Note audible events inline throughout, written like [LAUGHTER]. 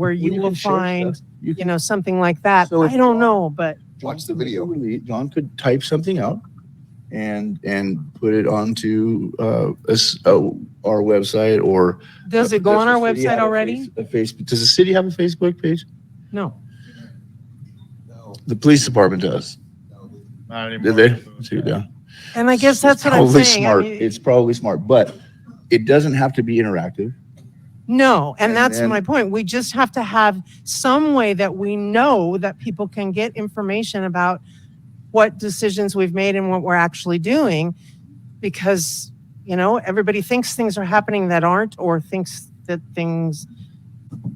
where We you can will share stuff. find, You you can know, something like that. So if- I don't know, but Watch the video. really- John could type something out and, and put it onto, uh, us, uh, our website or. does it go on our the website city have a already? face- A Facebook, does the city have a Facebook page? No. No, The police department does. no. Not Do anymore. they? Too, yeah. And I guess that's what I'm Probably saying. I smart. mean, It's probably smart, but it doesn't have to be interactive. No, and And that's then- my point. We just have to have some way that we know that people can get information about what decisions we've made and what we're actually doing. Because, you know, everybody thinks things are happening that aren't, or thinks that things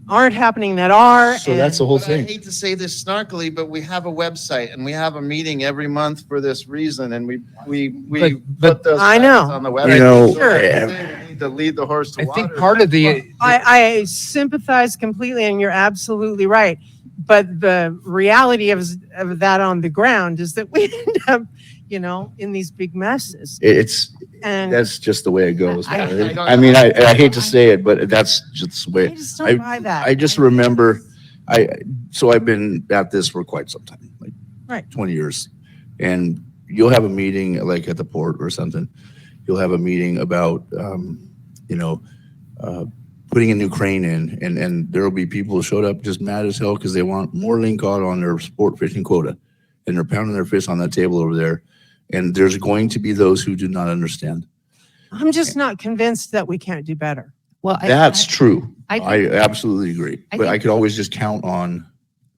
aren't happening that are. So that's the and- whole But I thing. hate to say this snarkily, but we have a website and we have a meeting every month for this reason and we, we, we But- but- put those. I know. facts On the You know, website. So I Sure. think we need To lead the horse I to water. think part of the, I, I sympathize completely, and you're absolutely right. But the reality of, of that on the ground is that we [LAUGHS] end up, you know, in these big messes. It- It's, And that's just the way it goes. I- I- I mean, I, I hate to say it, but that's just the way. I just don't buy that. I just remember, I, so I've been at this for quite some time, like Right. 20 years. And you'll have a meeting like at the port or something. You'll have a meeting about, um, you know, uh, putting a new crane in and, and there'll be people who showed up just mad as hell because they want more link cod on their sport fishing quota. And they're pounding their fish on that table over there. And there's going to be those who do not understand. I'm just not convinced that we can't do better. Well, I- That's true. I- I absolutely agree. I But I think- could always just count on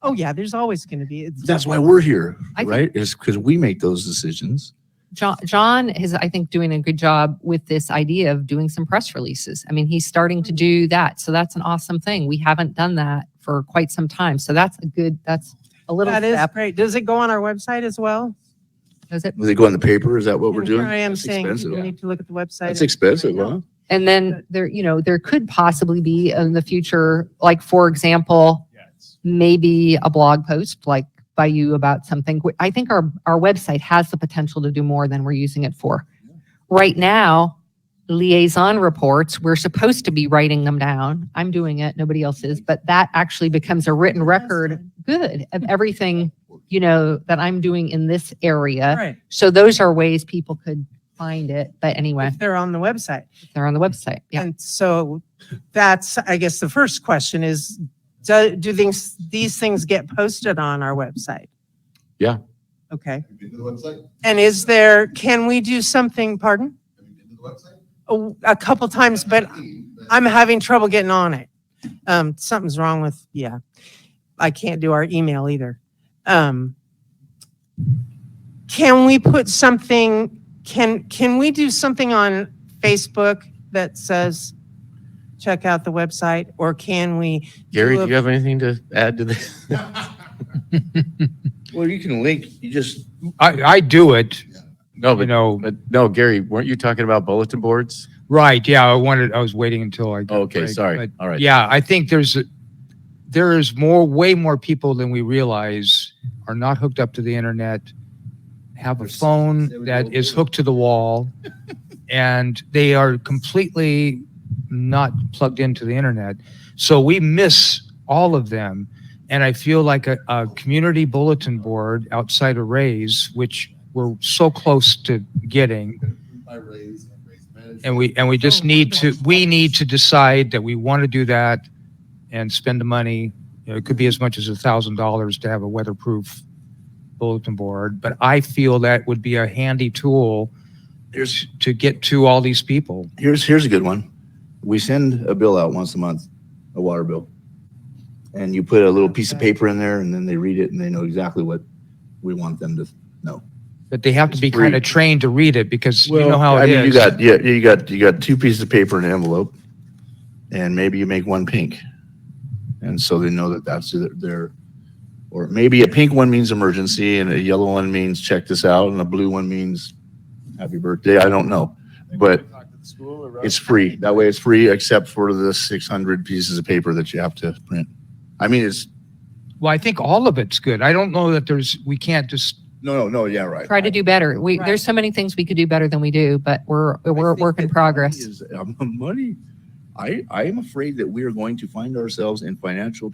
Oh yeah, there's always going to be. It's, that's why we're here, I think- right? Is because we make those decisions. John, John is, I think, doing a good job with this idea of doing some press releases. I mean, he's starting to do that. So that's an awesome thing. We haven't done that for quite some time. So that's a good, that's a little that is step. great. Does it go on our website as well? Does it? Will they go in the paper? Is that what we're And doing? Here I am That's saying expensive. people need to look at the website. That's expensive, I know. huh? And then there, you know, there could possibly be in the future, like, for example, maybe a blog post like by you about something. Wh- I think our, our website has the potential to do more than we're using it for. Right now, liaison reports, we're supposed to be writing them down. I'm doing it, nobody else is, but that actually becomes a written record, good, of everything, you know, that I'm doing in this area. Right. So those are ways people could find it, but anyway, If they're on the website. they're on the website, yeah. And so that's, I guess, the first question is, do, do things, these things get posted on our website? Yeah. Okay. Have you been to the website? And is there, can we do something, pardon? Have you been to the website? A, a couple times, but I'm having trouble getting on it. Um, something's wrong with, yeah. I can't do our email either. Um, can we put something, can, can we do something on Facebook that says, check out the website? Or can we? Gary, a- do you have anything to add to this? Well, you can link, you just. I, I do it, No, you but, know, but no, Gary, weren't you talking about bulletin boards? right, yeah, I wanted, I was waiting until I. got a Okay, break, sorry. but All right. Yeah, I think there's, a- there is more, way more people than we realize are not hooked up to the internet, have a There's- phone that is hooked to the wall, and they are completely not plugged into the internet. So we miss all of them. And I feel like a, a community bulletin board outside of Ray's, which we're so close to getting, I raise and raise management. and we, and we just need to, we need to decide that we want to do that and spend the money. You know, It could be as much as a thousand dollars to have a weatherproof bulletin board, but I feel that would be a handy tool Here's, to get to all these people. here's, here's a good one. We send a bill out once a month, a water bill. And you put a little piece of paper in there and then they read it and they know exactly what we want them to. But they have to It's be free. kind of trained to read it because you know how I it mean, You is. got, yeah, you got, you got two pieces of paper in an envelope and maybe you make one pink. And so they know that that's their- their, or maybe a pink one means emergency and a yellow one means check this out and a blue one means happy birthday. I don't know. But Talk to the school or- it's free. That way it's free except for the 600 pieces of paper that you have to print. I mean, it's, Well, I think all of it's good. I don't know that there's, we can't just, no, no, no, yeah, right. try to do better. We, there's so many things we could do better than we do, but we're, we're a work in [LAUGHS] progress. Is- um, Money, I, I am afraid that we are going to find ourselves in financial trouble